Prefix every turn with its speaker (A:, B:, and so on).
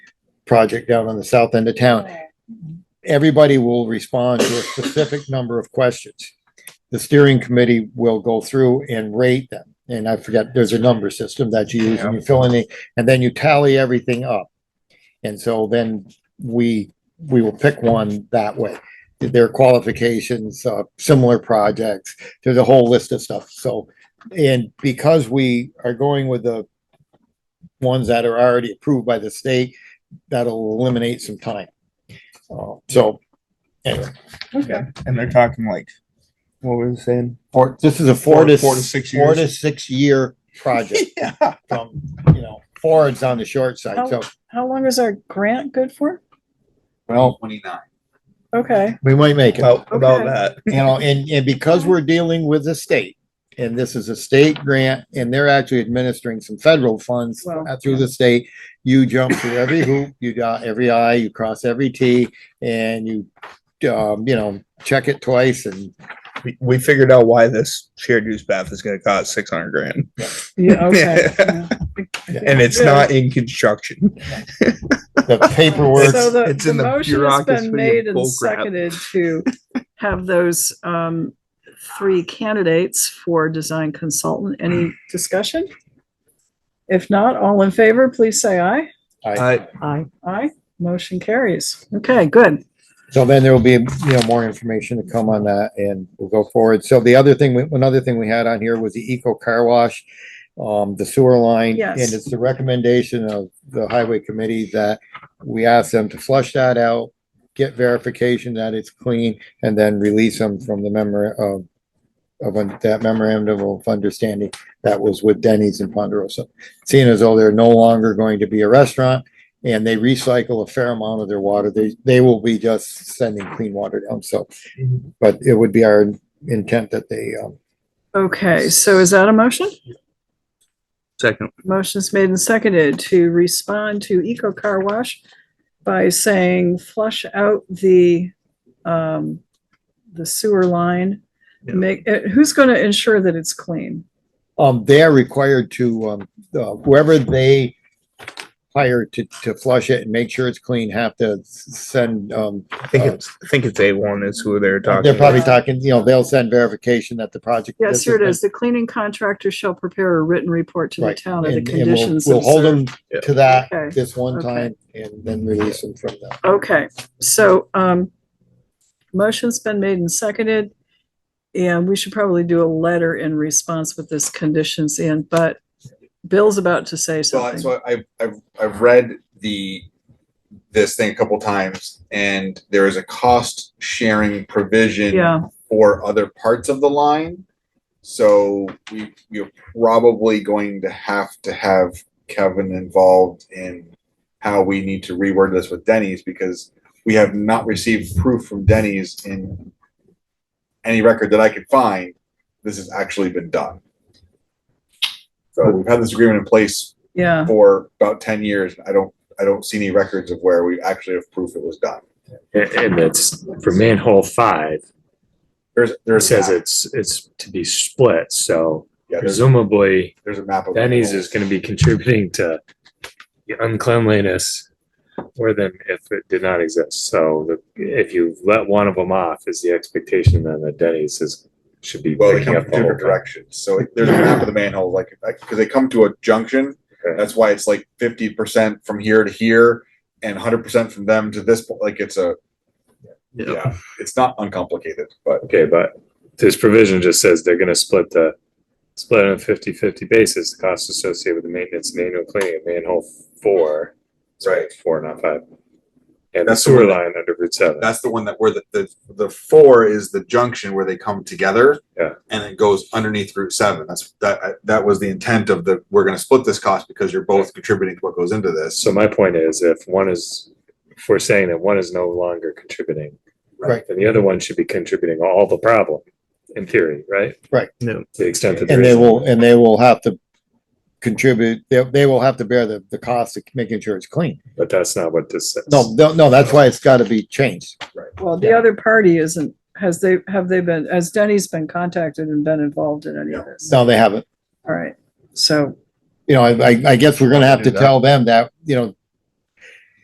A: project down on the south end of
B: Oh,
A: town. Everybody will respond to a specific number of questions. The steering committee will go through and rate them. And I forget, there's a number system that you use and you fill in the, and then you tally everything up. And so then we, we will pick one that way. Their qualifications, uh, similar projects, there's a whole list of stuff. So, and because we are going with the ones that are already approved by the state, that'll eliminate some time. Uh, So, anyway,
C: Okay. And they're talking like, what were you saying?
A: for, this is a four to.
C: Four to six
A: Four
C: years.
A: to six year project
C: Yeah.
A: from, you know, forwards on the short side, so,
B: How long is our grant good for? Oh.
A: well,
D: Twenty-nine.
B: Okay,
A: we might make it.
C: About, about
B: Okay.
C: that.
A: you know, and, and because we're dealing with the state, and this is a state grant, and they're actually administering some federal funds
B: Well,
A: through the state, you jump through every hoop, you dot every i, you cross every t, and you, um, you know, check it twice, and
C: We, we figured out why this shared use bath is going to cost 600 grand.
B: yeah, okay. yeah.
C: And it's not in construction.
A: the paperwork,
B: So the,
C: it's
B: the
C: in the
B: motion has
C: bureaucracy
B: been
C: of
B: made and
C: bullcrap.
B: seconded to have those, um, three candidates for design consultant. Any discussion? If not, all in favor, please say aye.
C: I,
B: Aye. Aye, motion carries. Okay, good.
A: So then there will be, you know, more information to come on that and we'll go forward. So the other thing, we- another thing we had on here was the Eco Car Wash, um, the sewer line.
B: Yes.
A: And it's the recommendation of the highway committee that we ask them to flush that out, get verification that it's clean, and then release them from the memor, of, of un- that memorandum of understanding that was with Denny's and Ponderosa. Seeing as though they're no longer going to be a restaurant, and they recycle a fair amount of their water. They, they will be just sending clean water down, so.
B: Mm-hmm.
A: But it would be our intent that they, um,
B: Okay, so is that a motion?
C: second.
B: Motion's made and seconded to respond to Eco Car Wash by saying flush out the, um, the sewer line.
C: Yeah.
B: Make, eh, who's gonna ensure that it's clean?
A: um, they are required to, um, uh, whoever they hire to, to flush it and make sure it's clean, have to s- send, um,
C: I think it's, I think it's A1 is who Uh, they're talking
A: they're probably
C: about.
A: talking, you know, they'll send verification that the project.
B: Yes, here it
A: this
B: is. The cleaning contractor shall prepare a written report to the
A: Right,
B: town of the
A: And and we'll,
B: conditions.
A: we'll hold
B: observed.
A: them to that
B: Okay,
A: this one
B: okay.
A: time and then release them from that.
B: Okay, so, um, motion's been made and seconded. And we should probably do a letter in response with this conditions in, but Bill's about to say
D: So, I-
B: something.
D: so I've, I've, I've read the, this thing a couple times and there is a cost sharing provision.
B: Yeah,
D: for other parts of the line. So we, you're probably going to have to have Kevin involved in how we need to reword this with Denny's because we have not received proof from Denny's in any record that I could find. This has actually been done. So we've had this agreement in place
B: yeah,
D: for about ten years. I don't, I don't see any records of where we actually have proof it was done.
E: And, and that's for manhole five,
D: There's,
E: it
D: there's. a
E: says
D: map.
E: it's, it's to be split, so
D: Yeah, there's,
E: presumably
D: there's a map of.
E: Denny's is gonna be contributing to the uncleanliness more than if it did not exist, so the, if you let one of them off, is the expectation then that Denny's is, should be
D: Well, they
E: picking
D: come
E: up
D: from
E: the whole
D: different
E: thing.
D: directions, so it- there's a map of the manhole, like, because they come to a junction.
E: Okay.
D: That's why it's like fifty percent from here to here and hundred percent from them to this, po- like, it's a.
C: Yeah.
D: Yeah, it's not uncomplicated, but
E: Okay, but this provision just says they're gonna split the, split on a fifty-fifty basis, the costs associated with the maintenance and annual cleaning of manhole four. sorry,
D: Right.
E: Four, not five. And the
D: That's the
E: sewer
D: one
E: line under Route seven.
D: that's the one that where the, the, the four is the junction where they come together.
E: Yeah.
D: And it goes underneath Route seven, that's, that, that was the intent of the, we're gonna split this cost because you're both contributing to what goes into this.
E: So my point is, if one is, if we're saying that one is no longer contributing.
A: Right.
E: Then the other one should be contributing all the problem, in theory, right?
A: Right.
E: No. To the extent that.
A: And
E: there
A: they
E: is-
A: will, and they will have to contribute, they, they will have to bear the, the cost of making sure it's clean.
E: But that's not what this says.
A: No, no, no, that's why it's gotta be changed.
B: well, the other party isn't, has they, have they been, has Denny's been contacted and been involved in any of this?
A: No, they haven't.
B: All right, so,
A: You know, I, I- I guess we're gonna have to
C: Do that.
A: tell them that, you know,